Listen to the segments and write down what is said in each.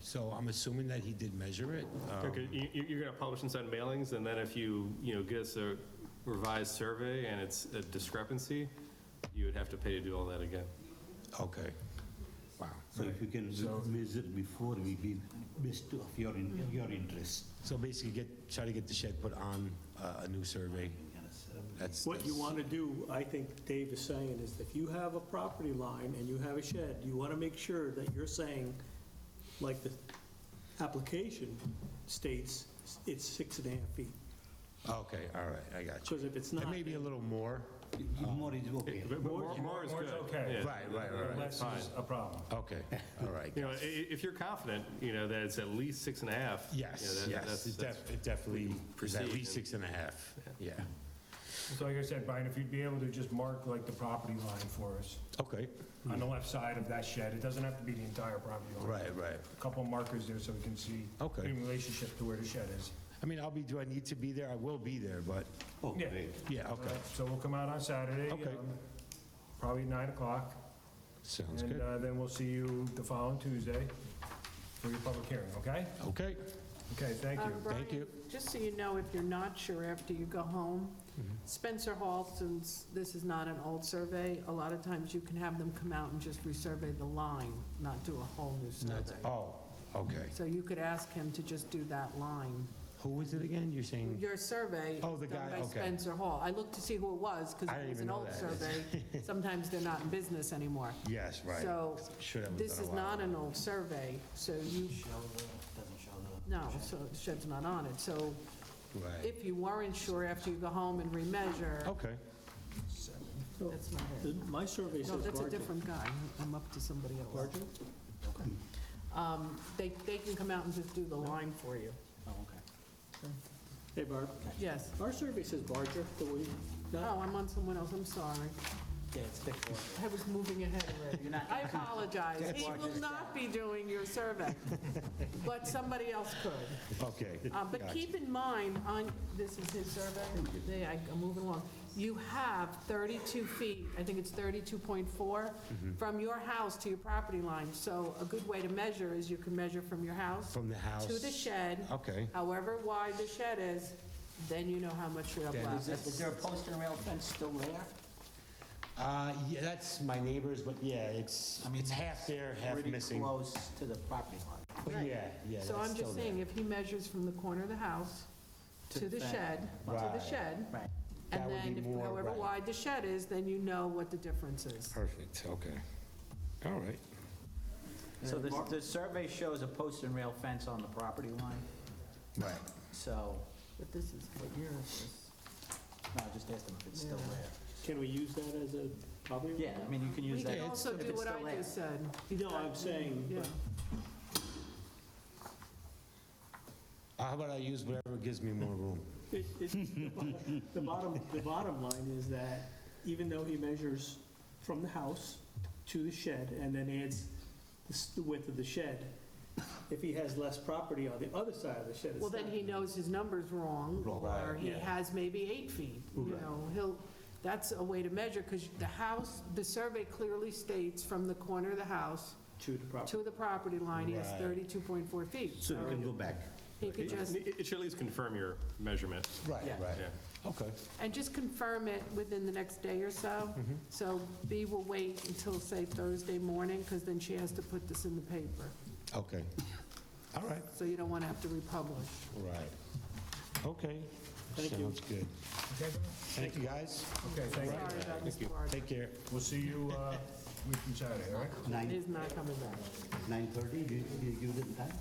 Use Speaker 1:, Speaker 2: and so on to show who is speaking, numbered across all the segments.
Speaker 1: So I'm assuming that he did measure it. Um,
Speaker 2: Okay, you, you- you're gonna publish and send mailings, and then if you, you know, get us a revised survey and it's a discrepancy, you would have to pay to do all that again. Uh,
Speaker 1: Okay. Wow.
Speaker 3: So if you can measure before we be best of your, in- your interest.
Speaker 1: So basically, get, try to get the shed put on uh, a new survey. That's.
Speaker 4: What you
Speaker 1: that's-
Speaker 4: want to do, I think Dave is saying, is if you have a property line and you have a shed, you want to make sure that you're saying, like the application states, it's six and a half feet.
Speaker 1: Okay, all right, I got you.
Speaker 4: Because if it's
Speaker 1: That
Speaker 4: not,
Speaker 1: may be a little more.
Speaker 5: Uh,
Speaker 3: More is okay.
Speaker 2: But More, more is
Speaker 5: More
Speaker 2: good.
Speaker 5: is okay.
Speaker 2: yeah.
Speaker 1: Right, right, right, right.
Speaker 5: Less is a problem.
Speaker 1: Okay, all right.
Speaker 2: You know, i- i- if you're confident, you know, that it's at least six and a half. you know,
Speaker 1: Yes,
Speaker 2: that-
Speaker 1: yes,
Speaker 2: that's-
Speaker 1: it
Speaker 2: that's-
Speaker 1: def- it definitely, is at
Speaker 2: proceed
Speaker 1: least
Speaker 2: and-
Speaker 1: six and a half, yeah.
Speaker 5: So like I said, Brian, if you'd be able to just mark like the property line for us
Speaker 1: Okay,
Speaker 5: on the left side of that shed, it doesn't have to be the entire property line.
Speaker 1: right, right.
Speaker 5: A Couple markers there so we can see
Speaker 1: Okay.
Speaker 5: in relationship to where the shed is.
Speaker 1: I mean, I'll be, do I need to be there? I will be there, but,
Speaker 3: Oh,
Speaker 5: Yeah.
Speaker 3: great.
Speaker 1: yeah, okay,
Speaker 5: Alright, So we'll come out on Saturday.
Speaker 1: Okay.
Speaker 5: um, Probably nine o'clock,
Speaker 1: sounds
Speaker 5: and
Speaker 1: good.
Speaker 5: uh, then we'll see you the following Tuesday for your public hearing, okay?
Speaker 1: Okay,
Speaker 5: Okay, thank
Speaker 6: Um,
Speaker 5: you.
Speaker 1: Thank
Speaker 6: Brian,
Speaker 1: you.
Speaker 6: Just so you know, if you're not sure after you go home,
Speaker 1: Mm-hmm.
Speaker 6: Spencer Hall, since this is not an old survey, a lot of times you can have them come out and just resurvey the line, not do a whole new survey.
Speaker 1: oh, okay.
Speaker 6: So you could ask him to just do that line.
Speaker 1: Who was it again? You're saying,
Speaker 6: Your survey
Speaker 1: Oh, the
Speaker 6: is done
Speaker 1: guy,
Speaker 6: by
Speaker 1: okay.
Speaker 6: Spencer Hall. I looked to see who it was, because
Speaker 1: I
Speaker 6: it
Speaker 1: didn't
Speaker 6: was
Speaker 1: even
Speaker 6: an
Speaker 1: know
Speaker 6: old
Speaker 1: that.
Speaker 6: survey. Sometimes they're not in business anymore.
Speaker 1: yes, right.
Speaker 6: So
Speaker 1: Sure, that was
Speaker 6: this
Speaker 1: done a
Speaker 6: is
Speaker 1: while
Speaker 6: not
Speaker 1: ago.
Speaker 6: an old survey, so you, no, so the shed's not on it. So
Speaker 1: Right,
Speaker 6: if you weren't sure after you go home and remeasure,
Speaker 1: okay,
Speaker 6: that's not it.
Speaker 4: my survey
Speaker 6: No,
Speaker 4: says
Speaker 6: that's a
Speaker 4: larger.
Speaker 6: different guy. I'm up to somebody else. Um, They, they can come out and just do the line for you.
Speaker 4: Hey, Barb,
Speaker 6: Yes.
Speaker 4: our survey says larger, the way, not,
Speaker 6: Oh, I'm on someone else, I'm sorry. Oh. I was moving ahead already. I apologize. He will not be doing your survey, but somebody else could.
Speaker 1: okay.
Speaker 6: Uh, But
Speaker 1: Gotcha.
Speaker 6: keep in mind, on, this is his survey, They- I- I'm moving along, you have 32 feet, I think it's 32.4,
Speaker 1: Mm-hmm.
Speaker 6: from your house to your property line. So a good way to measure is you can measure from your house
Speaker 1: From the house.
Speaker 6: to the shed,
Speaker 1: Okay,
Speaker 6: however wide the shed is, then you know how much you have
Speaker 1: Then
Speaker 6: left.
Speaker 7: Is there a post and rail fence still there?
Speaker 1: uh, yeah, that's my neighbor's, but yeah, it's, it's half there, half
Speaker 7: Pretty
Speaker 1: missing.
Speaker 7: close to the property line.
Speaker 1: But Yeah, yeah,
Speaker 6: So I'm
Speaker 1: that's still
Speaker 6: just
Speaker 1: there.
Speaker 6: saying, if he measures from the corner of the house to the shed, to the
Speaker 1: Right.
Speaker 6: shed,
Speaker 7: Right.
Speaker 1: That
Speaker 6: and
Speaker 1: would
Speaker 6: then
Speaker 1: be
Speaker 6: if-
Speaker 1: more,
Speaker 6: however
Speaker 1: right.
Speaker 6: wide the shed is, then you know what the difference is.
Speaker 1: Perfect, okay. All right.
Speaker 7: So the, the survey shows a post and rail fence on the property line,
Speaker 1: Right.
Speaker 7: so,
Speaker 6: But this is, what year is this?
Speaker 7: no, just ask them if it's still there.
Speaker 4: can we use that as a property? line?
Speaker 7: Yeah, I mean, you can
Speaker 6: We
Speaker 7: use that.
Speaker 6: can also
Speaker 7: if
Speaker 6: do
Speaker 7: it's
Speaker 6: what
Speaker 7: still
Speaker 6: I
Speaker 7: there.
Speaker 6: just said.
Speaker 4: No, I'm saying,
Speaker 6: Yeah,
Speaker 4: but-
Speaker 1: Uh, How about I use whatever gives me more room?
Speaker 4: It- it- The bottom, the bottom line is that even though he measures from the house to the shed and then adds the s- the width of the shed, if he has less property on the other side of the shed, it's
Speaker 6: well, then he knows his number's wrong, or he has maybe eight feet, you know, he'll, that's a way to measure, because the house, the survey clearly states from the corner of the house
Speaker 4: not to the property.
Speaker 6: to the property line, he has
Speaker 1: Right.
Speaker 6: 32.4 feet.
Speaker 3: So we can go back.
Speaker 6: He could just,
Speaker 2: It it should at least confirm your measurement.
Speaker 1: Right,
Speaker 7: Yeah.
Speaker 1: right.
Speaker 2: Yeah.
Speaker 1: Okay.
Speaker 6: and just confirm it within the next day or so. So B will wait until, say, Thursday morning, because then she has to put this in the paper,
Speaker 1: Okay. All right.
Speaker 6: so you don't want to have to republish.
Speaker 1: Right. Okay.
Speaker 4: Thank you.
Speaker 1: Sounds good.
Speaker 5: Okay,
Speaker 1: Thank you, guys.
Speaker 5: Okay, thank you.
Speaker 6: Sorry about Mr. Barger.
Speaker 1: Take care.
Speaker 5: We'll see you, uh, week from Saturday, all right?
Speaker 6: It
Speaker 3: Nine,
Speaker 6: is not coming back.
Speaker 3: 9:30, do you do you give them time?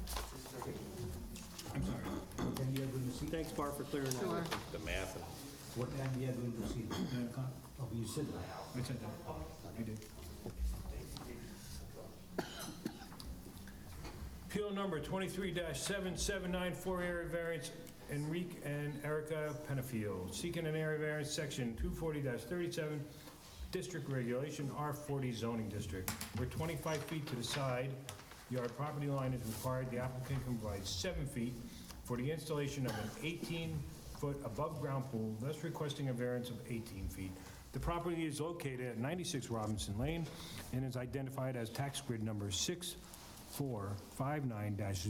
Speaker 3: I'm sorry. What time you are going to see?
Speaker 4: Thanks, Barb, for clearing that up.
Speaker 2: The math and
Speaker 3: What time we are going to see? Nine o'clock. Oh, you said that.
Speaker 5: Uh, I said that. I did. Appeal number 23-7794, area variance, Enrique and Erica Penafiel, seeking an area variance, section 240-37, district regulation, R40 zoning district, where 25 feet to the side yard property line is required, the applicant can provide 7 feet for the installation of an 18-foot above-ground pool, thus requesting a variance of 18 feet. The property is located at 96 Robinson Lane and is identified as tax grid number 6, four five nine dash